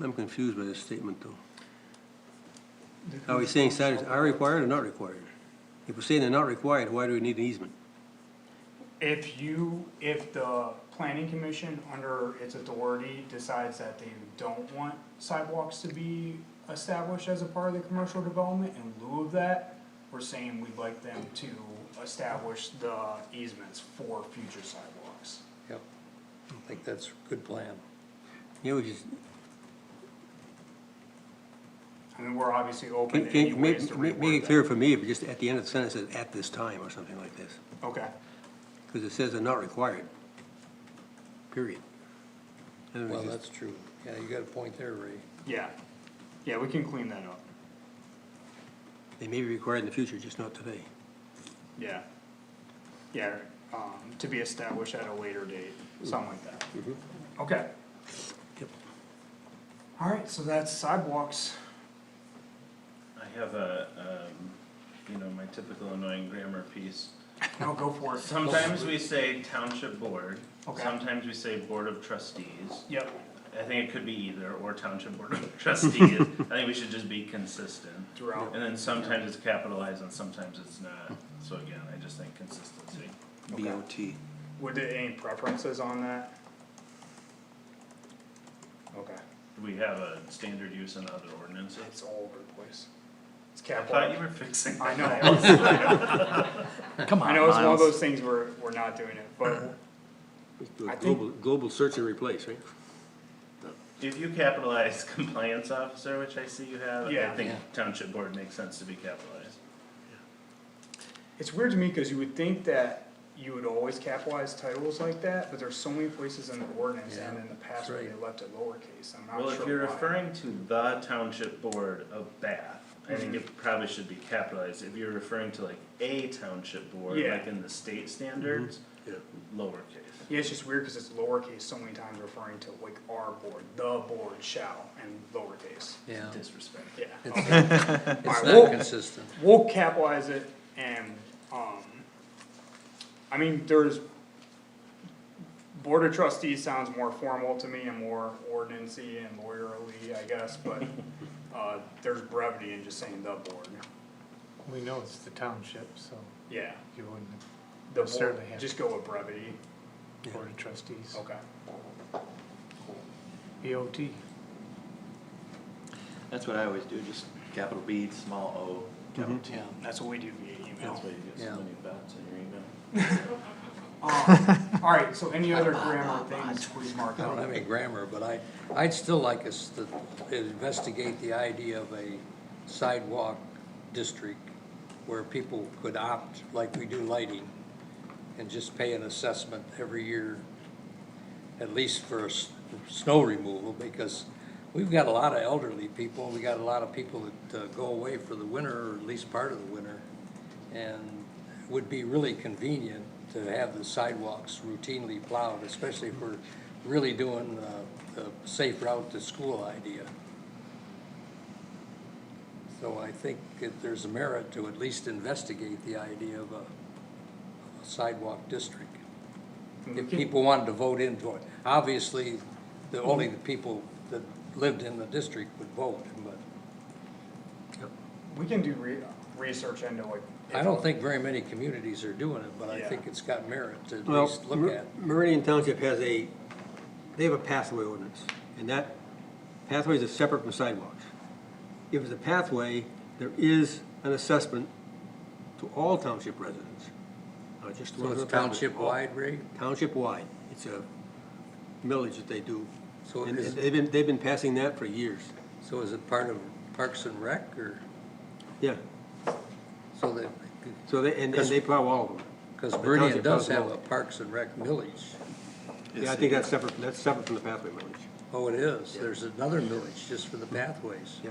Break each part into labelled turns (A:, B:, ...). A: I'm confused by this statement, though. Are we saying signs are required or not required? If we're saying they're not required, why do we need an easement?
B: If you, if the planning commission under its authority decides that they don't want sidewalks to be established as a part of the commercial development, in lieu of that, we're saying we'd like them to establish the easements for future sidewalks.
A: Yep. I think that's a good plan. Yeah, we just,
B: I mean, we're obviously open
A: can,
B: to any
A: can,
B: ways to
A: make, make make
B: reword
A: it clear
B: that.
A: for me, if just at the end of the sentence, it says, at this time, or something like this,
B: Okay,
A: because it says they're not required. Period. And we
C: Well,
A: just-
C: that's true. Yeah, you got a point there, Ray.
B: yeah, yeah, we can clean that up,
A: They may be required in the future, just not today.
B: yeah. Yeah, um, to be established at a later date, something like that. Okay.
A: Yep.
B: Alright, so that's sidewalks.
D: I have a, um, you know, my typical annoying grammar piece.
B: No, go for it.
D: Sometimes we say township board,
B: Okay.
D: sometimes we say board of trustees.
B: Yep,
D: I think it could be either, or township board of trustees, I think we should just be consistent.
B: throughout.
D: And then sometimes it's capitalized and sometimes it's not, so again, I just think consistency.
B: Okay.
E: BOT.
B: Would there any preferences on that? Okay,
D: Do we have a standard use in other ordinances?
B: it's all over the place. It's
D: I thought you
B: capital.
D: were fixing
B: I
D: that.
B: know,
F: Come
B: I
F: on,
B: know it's one of
F: Miles.
B: those things where we're not doing it, but I think-
A: Global, global search and replace, right?
D: If you capitalize compliance officer, which I see you have,
B: Yeah.
D: I think
C: Yeah.
D: township board makes sense to be capitalized.
B: it's weird to me, cause you would think that you would always capitalize titles like that, but there's so many places in the ordinance and in the past where
C: that's
B: they
C: right.
B: left it lowercase, I'm not sure why.
D: Well, if you're referring to the township board of Bath, I
B: Mm-hmm.
D: think it probably should be capitalized, if you're referring to like a township board,
B: Yeah. Mm-hmm.
D: like in the state standards,
A: Yeah.
D: lowercase.
B: Yeah, it's just weird because it's lowercase so many times referring to like our board, the board shall, and lowercase.
C: Yeah.
D: Disrespect.
B: Yeah.
C: It's
B: okay.
C: It's
B: well-
C: not consistent.
B: We'll capitalize it and, um, I mean, there's, board of trustees sounds more formal to me and more ordinancy and lawyerly, I guess, but, uh, there's brevity in just saying the board.
F: We know it's the township, so
B: Yeah,
F: you wouldn't,
B: the board,
F: Certainly have-
B: just go with brevity,
F: Board of Trustees,
B: okay.
F: BOT.
E: That's what I always do, just capital B, small O, capital T.
C: Yeah.
B: Mm-hmm. That's what we do via email.
D: That's why you get
C: Yeah.
D: so many bots in your email.
B: Um, alright, so any other grammar things, please mark
C: I
B: out.
C: don't have any grammar, but I, I'd still like us to investigate the idea of a sidewalk district where people could opt, like we do lighting, and just pay an assessment every year, at least for s- snow removal, because we've got a lot of elderly people, we got a lot of people that uh, go away for the winter, or at least part of the winter. And it would be really convenient to have the sidewalks routinely plowed, especially if we're really doing uh, the safe route to school idea. So I think that there's merit to at least investigate the idea of a a sidewalk district. If people wanted to vote in for it, obviously, the only the people that lived in the district would vote, but
B: We can do re- research into like.
C: I don't think very many communities are doing it, but I
B: Yeah.
C: think it's got merit to at
A: Well,
C: least look
A: Mer-
C: at.
A: Meridian Township has a, they have a pathway ordinance, and that, pathways are separate from sidewalks. If it's a pathway, there is an assessment to all township residents, not just the
C: So
A: ones
C: it's
A: on the pathway.
C: township-wide, Ray?
A: Township-wide, it's a millage that they do,
C: So
A: and
C: is-
A: they've been, they've been passing that for years,
C: So is it part of Parks and Rec, or,
A: yeah,
C: so that,
A: so they, and, and they plow all of them.
C: because
A: The
C: Meridian
A: township
C: does
A: does
C: have
A: all.
C: a Parks and Rec millage.
A: Yeah, I think that's separate, that's separate from the pathway millage,
C: Oh, it is,
A: Yeah.
C: there's another millage just for the pathways.
A: yeah.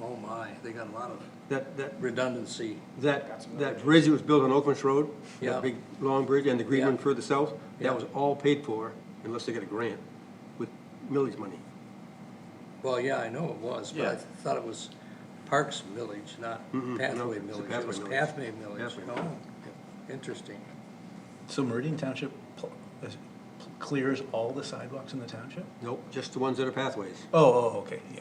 C: Oh my, they got a lot of
A: That, that,
C: redundancy.
A: That,
B: That's another
A: that bridge that was built on Oakland's Road,
C: Yeah.
A: that big, long bridge, and the green one
C: Yeah.
A: further south,
C: Yeah.
A: that was all paid for, unless they got a grant, with millage money.
C: Well, yeah, I know it was, but I
E: Yeah.
C: thought it was Parks millage, not
A: Mm-mm, no,
C: pathway
A: Mm-hmm. it's a
C: millage. It was
A: pathway
C: pathway oh, millage.
A: Pathway millage,
C: Oh, interesting.
G: So Meridian Township pl- uh,
A: clears all the sidewalks in the township?
G: Nope, just the ones that are pathways.
A: Oh, oh, okay, yeah.